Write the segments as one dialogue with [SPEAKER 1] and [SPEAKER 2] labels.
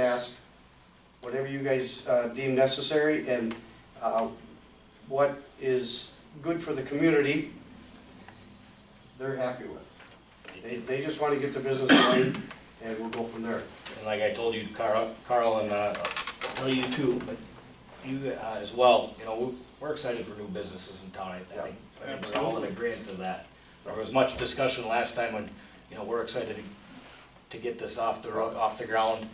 [SPEAKER 1] ask whatever you guys uh, deem necessary and uh, what is good for the community, they're happy with. They, they just want to get the business going and we'll go from there.
[SPEAKER 2] And like I told you, Carl, Carl and, uh, I'll tell you too, but you uh, as well, you know, we- we're excited for new businesses in town, I I think. I think we're all in agreement of that. There was much discussion last time when, you know, we're excited to- to get this off the, ro- off the ground.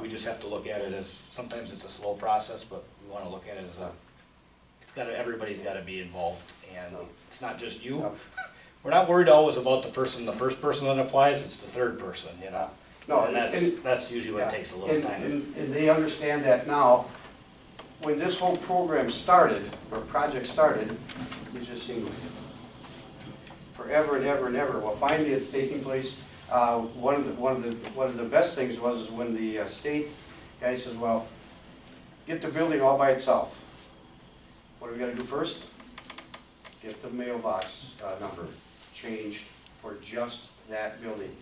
[SPEAKER 2] We just have to look at it as, sometimes it's a slow process, but we wanna look at it as a, it's gotta, everybody's gotta be involved. And it's not just you. We're not worried always about the person, the first person that applies, it's the third person, you know?
[SPEAKER 1] No,
[SPEAKER 2] And that's,
[SPEAKER 1] and-
[SPEAKER 2] that's usually what takes a little
[SPEAKER 1] And-
[SPEAKER 2] time.
[SPEAKER 1] And, and they understand that now. When this whole program started, or project started, we just seemed forever and ever and ever. Well, finally, it's taking place. Uh, one of the, one of the, one of the best things was when the uh, state guy says, well, get the building all by itself. What do we gotta do first? Get the mailbox, uh, number changed for just that building.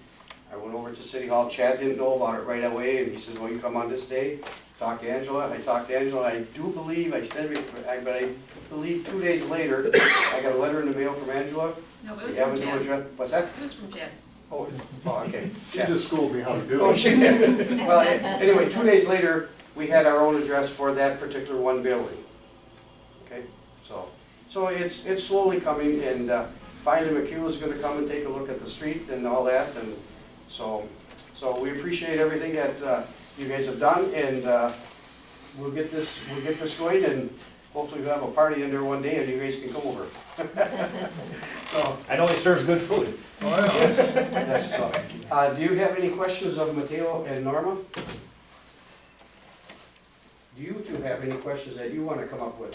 [SPEAKER 1] I went over to City Hall, Chad didn't know about it right away, and he says, well, you come on this day, talk to Angela, I talked to Angela, I do believe, I said, but I- but I believe two days later, I got a letter in the mail from Angela,
[SPEAKER 3] No, it
[SPEAKER 1] we
[SPEAKER 3] was
[SPEAKER 1] have
[SPEAKER 3] from
[SPEAKER 1] a new
[SPEAKER 3] Jen.
[SPEAKER 1] address, what's that?
[SPEAKER 3] It was from Jen.
[SPEAKER 1] Oh, oh, okay,
[SPEAKER 4] She
[SPEAKER 1] Chad.
[SPEAKER 4] just schooled me how to do
[SPEAKER 1] Oh,
[SPEAKER 4] it.
[SPEAKER 1] shit. Well, a- anyway, two days later, we had our own address for that particular one building. Okay, so, so it's, it's slowly coming, and uh, finally McHugh is gonna come and take a look at the street and all that, and so, so we appreciate everything that uh, you guys have done, and uh, we'll get this, we'll get this going, and hopefully we'll have a party in there one day, and you guys can come over. So,
[SPEAKER 2] I know he serves good food.
[SPEAKER 1] yes, yes, so, uh, do you have any questions of Mateo and Norma? Do you two have any questions that you wanna come up with?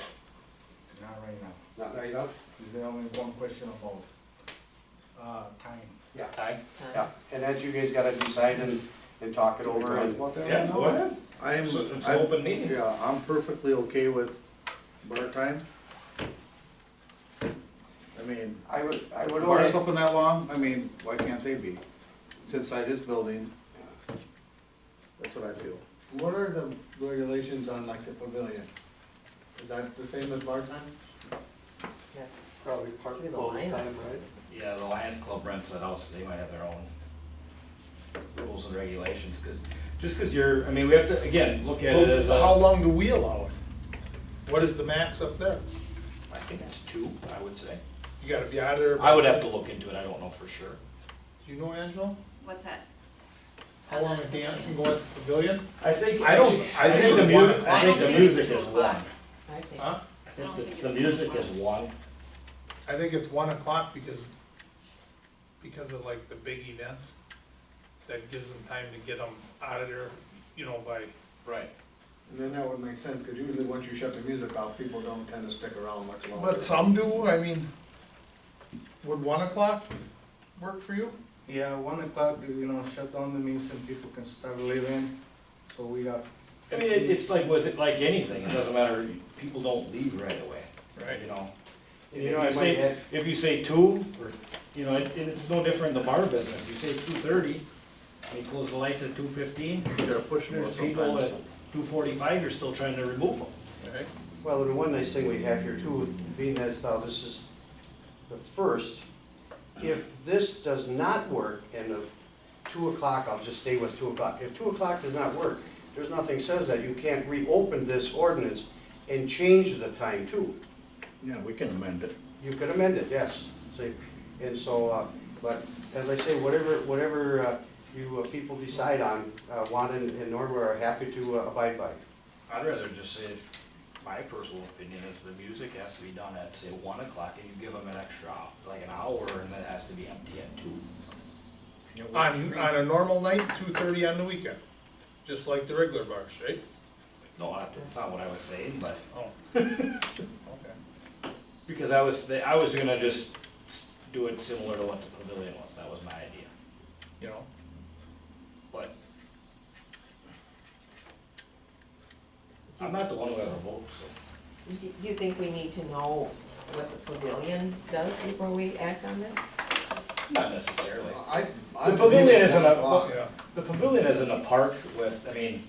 [SPEAKER 5] Not right now.
[SPEAKER 1] Not right now?
[SPEAKER 5] Is there only one question about, uh, time?
[SPEAKER 2] Time?
[SPEAKER 1] Yeah, and that you guys gotta decide and, and talk it over and,
[SPEAKER 2] Yeah, go ahead.
[SPEAKER 6] I'm,
[SPEAKER 2] It's it's an
[SPEAKER 6] I'm,
[SPEAKER 2] open meeting.
[SPEAKER 6] yeah, I'm perfectly okay with bar time. I mean,
[SPEAKER 1] I would, I would
[SPEAKER 6] bar's
[SPEAKER 1] only,
[SPEAKER 6] open that long, I mean, why can't they be? It's inside his building. That's what I feel.
[SPEAKER 4] What are the regulations on like the pavilion? Is that the same as bar time?
[SPEAKER 7] Yes.
[SPEAKER 1] probably part
[SPEAKER 7] Through
[SPEAKER 1] of
[SPEAKER 7] the
[SPEAKER 1] close time,
[SPEAKER 7] lines.
[SPEAKER 1] right?
[SPEAKER 2] Yeah, the Lions Club rents that out, so they might have their own rules and regulations, because, just because you're, I mean, we have to, again, look at it as a.
[SPEAKER 4] How long do we allow it? uh, What is the max up there?
[SPEAKER 2] I think it's two, I would say.
[SPEAKER 4] You gotta be out of there. by-
[SPEAKER 2] I would have to look into it, I don't know for sure.
[SPEAKER 4] Do you know, Angela?
[SPEAKER 3] What's that?
[SPEAKER 4] How long a dance can go at the pavilion?
[SPEAKER 2] I think.
[SPEAKER 4] I don't- I think
[SPEAKER 2] the
[SPEAKER 4] it's
[SPEAKER 2] mu-
[SPEAKER 4] one.
[SPEAKER 2] I think
[SPEAKER 3] I don't
[SPEAKER 2] the
[SPEAKER 3] think it's
[SPEAKER 2] music
[SPEAKER 3] two
[SPEAKER 2] is
[SPEAKER 3] o'clock.
[SPEAKER 2] one.
[SPEAKER 7] I think.
[SPEAKER 4] Huh?
[SPEAKER 2] I
[SPEAKER 3] don't
[SPEAKER 2] think
[SPEAKER 3] think
[SPEAKER 2] it's, the
[SPEAKER 3] it's two
[SPEAKER 2] music
[SPEAKER 3] o'clock.
[SPEAKER 2] is one.
[SPEAKER 4] I think it's one o'clock because, because of like the big events. That gives them time to get them out of there, you know, by.
[SPEAKER 2] Right.
[SPEAKER 8] And then that would make sense, because usually once you shut the music off, people don't tend to stick around much longer.
[SPEAKER 4] But some do, I mean, would one o'clock work for you?
[SPEAKER 5] Yeah, one o'clock, you know, shut down the means and people can start leaving, so we got.
[SPEAKER 2] I mean, it- it's like with, like anything, it doesn't matter, people don't leave right away. You know?
[SPEAKER 1] And you know, I
[SPEAKER 2] If you
[SPEAKER 1] might
[SPEAKER 2] say-
[SPEAKER 1] add,
[SPEAKER 2] If you say two, or, you know, it, it's no different in the bar business, you say two thirty, and you close the lights at two fifteen,
[SPEAKER 6] They're pushing it
[SPEAKER 2] there's people
[SPEAKER 6] sometimes.
[SPEAKER 2] at two forty-five, you're still trying to remove them.
[SPEAKER 4] Right.
[SPEAKER 1] well, the one nice thing we have here too, being as how this is the first, if this does not work and the two o'clock, I'll just stay with two o'clock. If two o'clock does not work, there's nothing says that you can't reopen this ordinance and change the time too.
[SPEAKER 6] Yeah, we can amend it.
[SPEAKER 1] You could amend it, yes. See, and so, uh, but as I say, whatever, whatever uh, you uh, people decide on, uh, Juan and and Norma are happy to uh, abide by.
[SPEAKER 2] I'd rather just say, if- my personal opinion is the music has to be done at, say, one o'clock, and you give them an extra, like an hour, and then it has to be empty at two.
[SPEAKER 4] On, on a normal night, two thirty on the weekend, just like the regular bars, right?
[SPEAKER 2] No, I- that's not what I was saying, but,
[SPEAKER 4] Oh. Okay.
[SPEAKER 2] because I was, I was gonna just s- do it similar to what the pavilion was, that was my idea,
[SPEAKER 4] You know,
[SPEAKER 2] but. I'm not the one who has a vote, so.
[SPEAKER 7] Do do you think we need to know what the pavilion does before we act on this?
[SPEAKER 2] Not necessarily.
[SPEAKER 8] I, I
[SPEAKER 2] The
[SPEAKER 8] believe
[SPEAKER 2] pavilion
[SPEAKER 8] it's
[SPEAKER 2] isn't
[SPEAKER 6] Uh,
[SPEAKER 8] one
[SPEAKER 2] a-
[SPEAKER 8] o'clock.
[SPEAKER 4] yeah.
[SPEAKER 2] The pavilion isn't a park with, I mean,